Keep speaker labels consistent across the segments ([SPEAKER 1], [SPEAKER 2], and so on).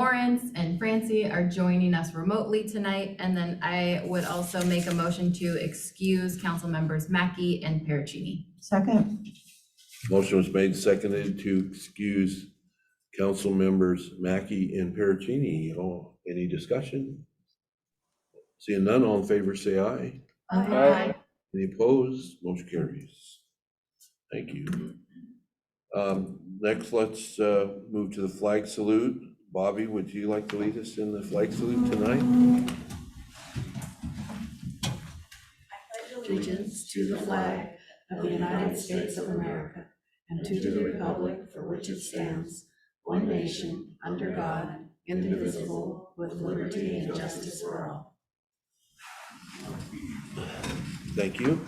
[SPEAKER 1] Lawrence and Francie are joining us remotely tonight. And then I would also make a motion to excuse council members Mackey and Pericini.
[SPEAKER 2] Second,
[SPEAKER 3] Motion was made, seconded to excuse council members Mackey and Pericini. Oh, any discussion? Seeing none, all in favor, say aye.
[SPEAKER 4] Aye.
[SPEAKER 3] Any opposed? Motion carries. Thank you. Um, next, let's, uh, move to the flag salute. Bobby, would you like to lead us in the flag salute tonight?
[SPEAKER 5] allegiance to the flag of the United States of America and to the republic for which it stands, one nation, under God, indivisible, with liberty and justice for all.
[SPEAKER 3] Thank you.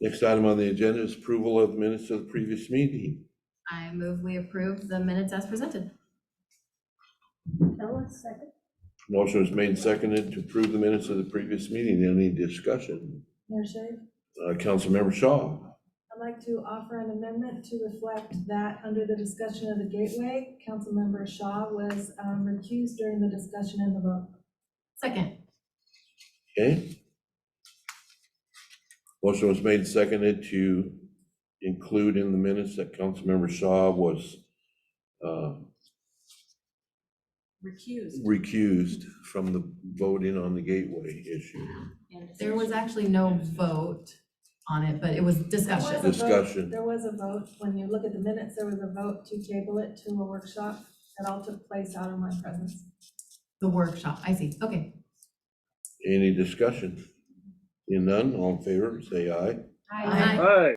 [SPEAKER 3] Next item on the agenda is approval of minutes of the previous meeting.
[SPEAKER 1] I move we approve the minutes as presented.
[SPEAKER 3] Motion was made and seconded to approve the minutes of the previous meeting. Any discussion?
[SPEAKER 4] Mayor Shave,
[SPEAKER 3] Uh, Councilmember Shaw,
[SPEAKER 4] I'd like to offer an amendment to reflect that under the discussion of the gateway, Councilmember Shaw was um, recused during the discussion in the vote.
[SPEAKER 1] Second,
[SPEAKER 3] okay? Motion was made and seconded to include in the minutes that Councilmember Shaw was uh,
[SPEAKER 5] Recused.
[SPEAKER 3] recused from the voting on the gateway issue.
[SPEAKER 1] there was actually no vote on it, but it was
[SPEAKER 4] There
[SPEAKER 1] discussion.
[SPEAKER 4] was a vote-
[SPEAKER 3] Discussion.
[SPEAKER 4] There was a vote, when you look at the minutes, there was a vote to table it to a workshop that all took place out of my presence.
[SPEAKER 1] The workshop, I see, okay.
[SPEAKER 3] Any discussion? Seeing none, all in favor, say aye.
[SPEAKER 1] Aye.
[SPEAKER 6] Aye.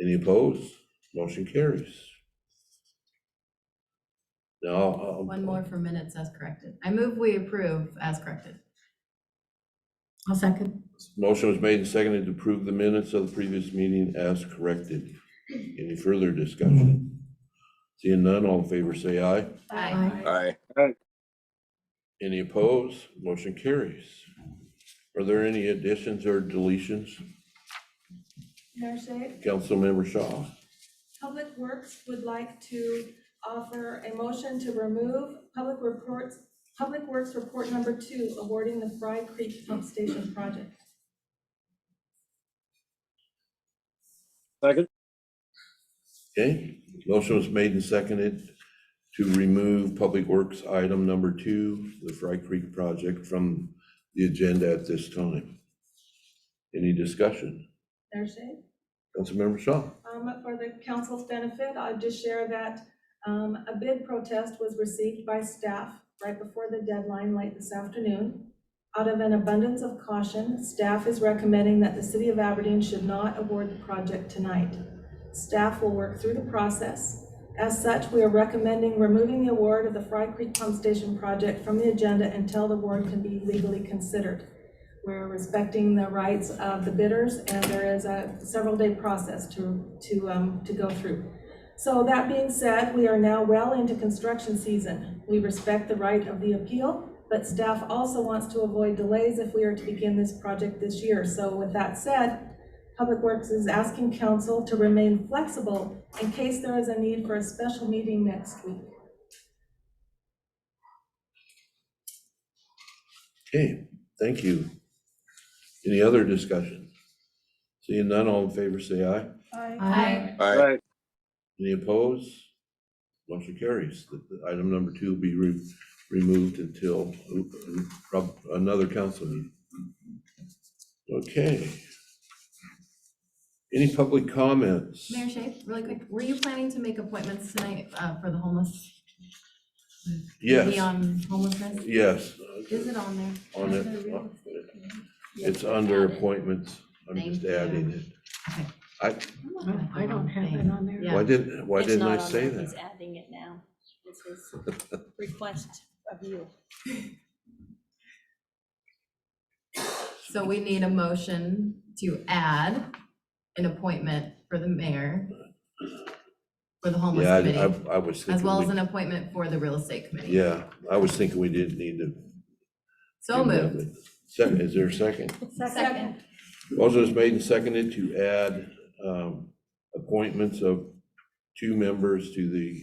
[SPEAKER 3] Any opposed? Motion carries. Now. uh, I'll-
[SPEAKER 1] One more for minutes as corrected. I move we approve as corrected.
[SPEAKER 2] I'll second.
[SPEAKER 3] Motion was made and seconded to approve the minutes of the previous meeting as corrected. Any further discussion? Seeing none, all in favor say aye.
[SPEAKER 1] Aye.
[SPEAKER 6] Aye.
[SPEAKER 3] Any opposed? Motion carries. Are there any additions or deletions?
[SPEAKER 4] Mayor Shave?
[SPEAKER 3] Councilmember Shaw,
[SPEAKER 4] Public Works would like to offer a motion to remove Public Reports, Public Works Report Number Two, awarding the Fry Creek Pump Station project.
[SPEAKER 6] Second.
[SPEAKER 3] okay? Motion was made and seconded to remove Public Works item number two, the Fry Creek project, from the agenda at this time. Any discussion?
[SPEAKER 4] Mayor Shea?
[SPEAKER 3] Councilmember Shaw?
[SPEAKER 4] Um, for the council's benefit, I'll just share that, um, a bid protest was received by staff right before the deadline late this afternoon. Out of an abundance of caution, staff is recommending that the city of Aberdeen should not award the project tonight. Staff will work through the process. As such, we are recommending removing the award of the Fry Creek Pump Station project from the agenda until the award can be legally considered. We're respecting the rights of the bidders, and there is a several-day process to, to, um, to go through. So that being said, we are now well into construction season. We respect the right of the appeal, but staff also wants to avoid delays if we are to begin this project this year. So with that said, Public Works is asking council to remain flexible in case there is a need for a special meeting next week.
[SPEAKER 3] Okay, thank you. Any other discussion? Seeing none, all in favor, say aye.
[SPEAKER 1] Aye.
[SPEAKER 6] Aye.
[SPEAKER 3] Any opposed? Motion carries. The- the Item number two will be re- removed until uh, prob- another council meeting. Okay. Any public comments?
[SPEAKER 1] Mayor Shay, really quick, were you planning to make appointments tonight uh, for the homeless? Maybe
[SPEAKER 3] Yes,
[SPEAKER 1] on homelessness?
[SPEAKER 3] yes,
[SPEAKER 1] Is it on there?
[SPEAKER 3] on it. It's under appointments. I'm
[SPEAKER 1] Thank
[SPEAKER 3] just
[SPEAKER 1] you.
[SPEAKER 3] adding it.
[SPEAKER 2] I don't have it on there.
[SPEAKER 1] Yeah.
[SPEAKER 3] Why didn't, why didn't I say
[SPEAKER 7] He's
[SPEAKER 3] that?
[SPEAKER 7] adding it now. It's his request of you.
[SPEAKER 1] So we need a motion to add an appointment for the mayor for the homeless
[SPEAKER 3] Yeah, I-
[SPEAKER 1] committee,
[SPEAKER 3] I, I was thinking.
[SPEAKER 1] as well
[SPEAKER 3] we-
[SPEAKER 1] as an appointment for the real estate committee.
[SPEAKER 3] Yeah, I was thinking we didn't need to.
[SPEAKER 1] So moved.
[SPEAKER 3] Second, is there a second?
[SPEAKER 1] Second.
[SPEAKER 3] Motion is made and seconded to add um, appointments of two members to the